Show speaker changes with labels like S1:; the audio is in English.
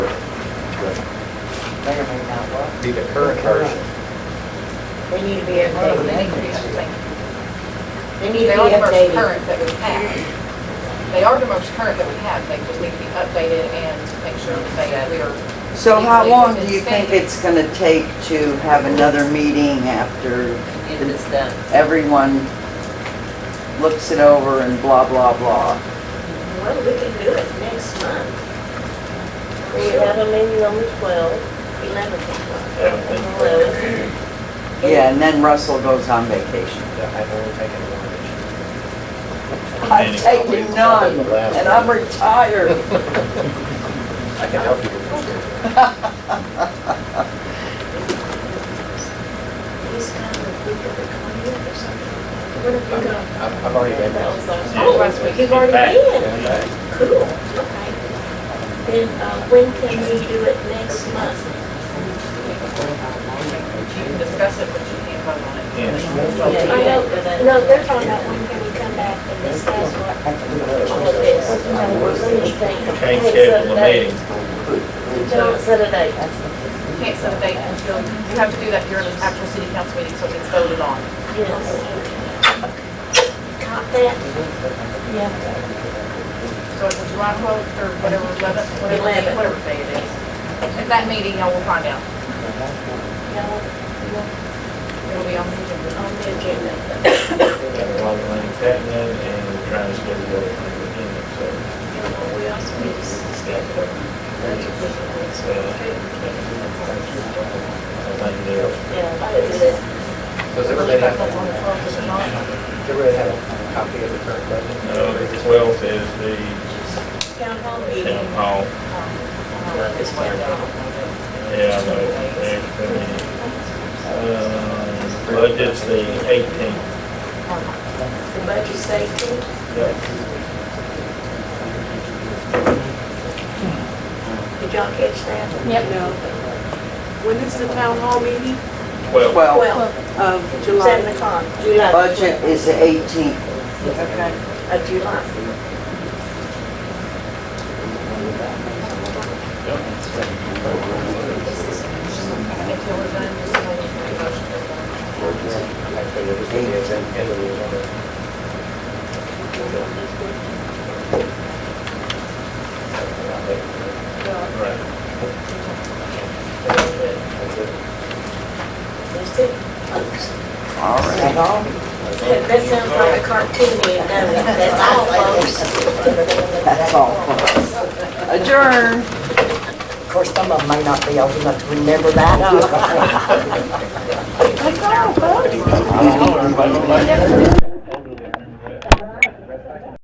S1: may or may not work.
S2: be the current version.
S1: They need to be updated anyways. They need
S3: They
S1: to
S3: are
S1: be
S3: the most
S1: updated.
S3: current that we have. They are the most current that we have, they just need to be updated and make sure that they, uh, we are.
S4: So how
S3: legally
S4: long
S3: within
S4: do you think
S3: standard.
S4: it's going to take to have another meeting after
S5: Get this done.
S4: everyone looks it over and blah, blah, blah?
S6: Well, we can do it next month. We have a meeting on the 12th, 11th. and 12th.
S4: Yeah, and then Russell goes on vacation.
S2: I've only taken one.
S4: I've taken none, and I'm retired.
S2: I can help you with this.
S6: He's kind of the week of the 20th or something. What have you got?
S2: I've I've already been there.
S6: Oh, last week, you've already been.
S2: Yeah, I-
S6: Cool, okay. Then uh, when can we do it next month?
S3: You can discuss it, but you can't vote on it.
S6: I know, no, they're talking about when can we come back and discuss what, all of this.
S7: Can't schedule a meeting.
S6: Don't set a date.
S3: You can't set a date until, you have to do that during the actual city council meeting, so it's voted on.
S6: Yes. Caught that?
S3: So it's July 12th or whatever, 11th, whatever, day-
S6: Eleven.
S3: whatever day it is. At that meeting, y'all will find out.
S6: No,
S3: It'll be on the agenda.
S6: on the agenda.
S7: Got a lot of things happening and trying to schedule everything within it, so.
S6: Well, we also need to schedule.
S7: it's, uh, I think they're-
S6: Yeah. Is it?
S2: Does everybody have, does everybody have a copy of the current budget?
S7: No, the 12th is the
S6: Town hall
S7: town
S6: meeting.
S7: hall.
S3: Uh, This way.
S7: Yeah, I know. There's been, uh, Budget's the 18th.
S6: The budget safety. Did y'all catch that?
S8: Yep. No. When is the town hall meeting?
S7: Well,
S4: Well,
S6: Well,
S8: Of
S6: seven o'clock, July.
S4: budget is the 18th.
S8: Okay.
S6: Of July.
S3: If y'all are done, just make a motion.
S2: I figured it is in, in the rules on it.
S7: right.
S2: That's it.
S6: That's it.
S4: All right.
S6: That that sounds like a cartoon, you know, that's all, folks.
S4: That's all. folks. Adjourn.
S1: Of course, some of them may not be old enough to remember that.
S4: Let's go, folks.